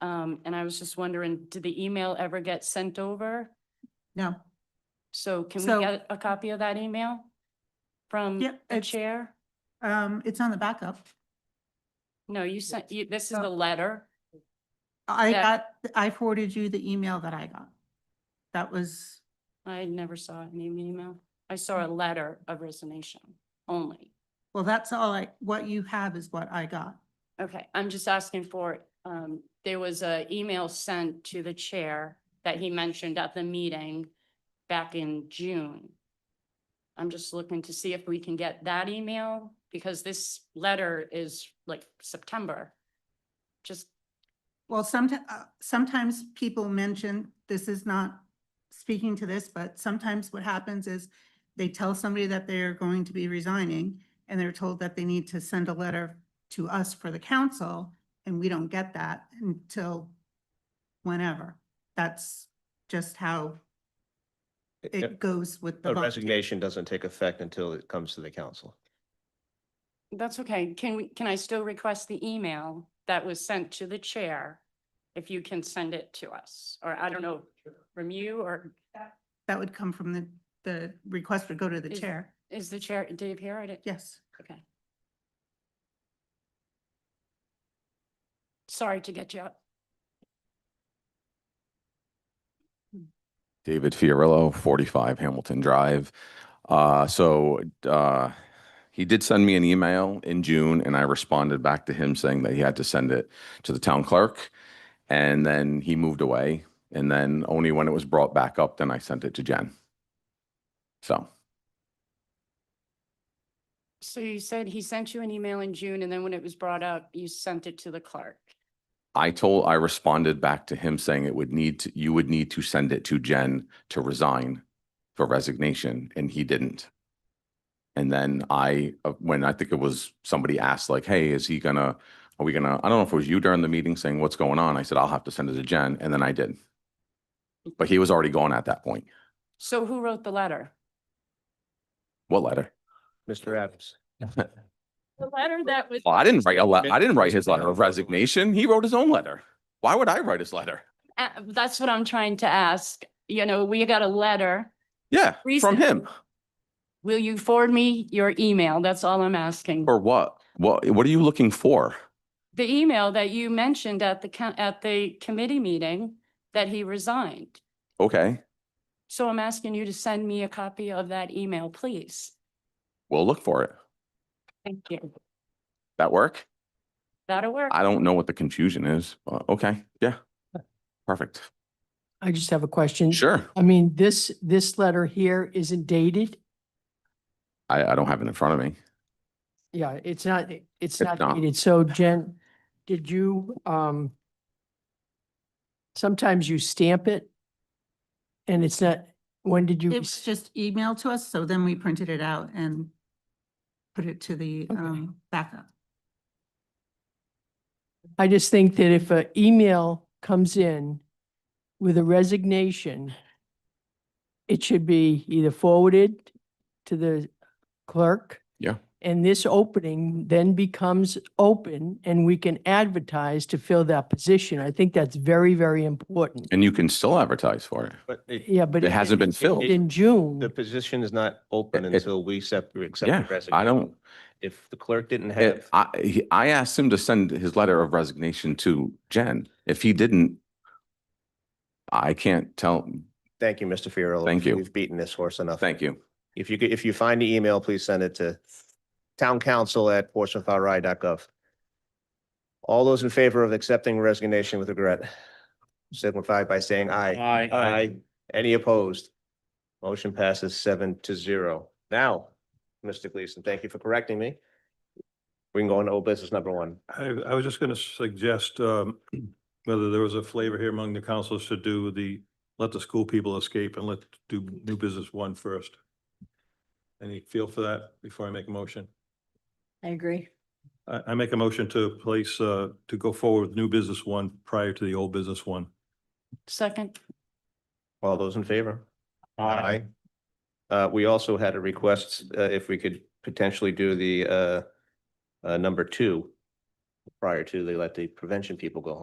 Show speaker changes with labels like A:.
A: Um, and I was just wondering, did the email ever get sent over?
B: No,
A: So can
B: So-
A: we get a copy of that email? From
B: Yep,
A: the
B: it's-
A: chair?
B: um, it's on the backup.
A: No, you sent, you, this is
B: No.
A: the letter.
B: I
A: Yeah.
B: got, I forwarded you the email that I got. That was,
A: I never saw any email. I saw a
B: Mm.
A: letter of resignation only.
B: well, that's all I, what you have is what I got.
A: Okay, I'm just asking for, it. um, there was a email sent to the chair that he mentioned at the meeting back in June. I'm just looking to see if we can get that email, because this letter is like September. Just,
B: Well, sometimes, sometimes people mention, this is not speaking to this, but sometimes what happens is they tell somebody that they're going to be resigning and they're told that they need to send a letter to us for the council and we don't get that until whenever. That's just how
C: A
B: it goes with the
C: a
B: vote.
C: resignation doesn't take effect until it comes to the council.
A: that's okay. Can we, can I still request the email that was sent to the chair? If you can send it to us, or I don't know, from you, or
B: That would come from the, the request would go to the
A: Is-
B: chair.
A: is the chair, Dave here? I didn't-
B: Yes.
A: Okay. Sorry to get you up.
D: David Fiorillo, 45 Hamilton Drive. Uh, so uh, he did send me an email in June, and I responded back to him saying that he had to send it to the town clerk. And then he moved away. And then only when it was brought back up, then I sent it to Jen. So
A: So you said he sent you an email in June and then when it was brought up, you sent it to the clerk.
D: I told, I responded back to him saying it would need, to, you would need to send it to Jen to resign for resignation, and he didn't. And then I, uh, when I think it was somebody asked like, hey, is he gonna, are we gonna, I don't know if it was you during the meeting saying what's going on. I said, I'll have to send it to Jen, and then I did. But he was already gone at that point.
A: So who wrote the letter?
D: What letter?
C: Mr. Adams.
A: The letter that was.
D: Well, I didn't write a le, I didn't write his letter of resignation. He wrote his own letter. Why would I write his letter?
A: Uh, that's what I'm trying to ask. You know, we got a letter.
D: Yeah, from him.
A: recently. Will you forward me your email? That's all I'm asking.
D: Or what? What, what are you looking for?
A: The email that you mentioned at the, coun- at the committee meeting that he resigned.
D: Okay.
A: So I'm asking you to send me a copy of that email, please.
D: We'll look for it.
A: Thank you.
D: That work?
A: That'll work.
D: I don't know what the confusion is. Uh, Okay, yeah. Perfect.
E: I just have a question.
D: Sure.
E: I mean, this, this letter here isn't dated.
D: I, I don't have it in front of me.
E: Yeah, it's not, it's
D: It's
E: not
D: not.
E: dated. So Jen, did you, um, sometimes you stamp it and it's not, when did you?
B: It was just emailed to us, so then we printed it out and put it to the
E: Okay.
B: um, backup.
E: I just think that if an email comes in with a resignation, it should be either forwarded to the clerk.
D: Yeah.
E: And this opening then becomes open and we can advertise to fill that position. I think that's very, very important.
D: And you can still advertise for it.
C: But it-
E: Yeah, but.
D: It hasn't been
E: it's
D: filled.
E: In
C: the
E: June,
C: position is not open
D: It- it-
C: until we accept, we accept
D: Yeah,
C: the resignation.
D: I don't,
C: If the clerk didn't
D: it-
C: have,
D: I, he- I asked him to send his letter of resignation to Jen. If he didn't, I can't tell.
C: thank you, Mr. Fiorillo.
D: Thank you.
C: We've beaten this horse enough.
D: Thank you.
C: If you, could- if you find the email, please send it to towncouncil@portsmouthri.gov. All those in favor of accepting resignation with regret signify by saying aye.
F: Aye.
C: Aye. Any opposed? Motion passes seven to zero. Now, Mr. Gleason, thank you for correcting me. We can go on to old business number one.
G: I, I was just going to suggest um, whether there was a flavor here among the councils to do the, let the school people escape and let do new business one first. Any feel for that before I make a motion?
H: I agree.
G: I, I make a motion to place, uh, to go forward with new business one prior to the old business one.
A: Second,
C: All those in favor? Aye. Uh, we also had a request, uh, if we could potentially do the, uh, uh, number two prior to they let the prevention people go home.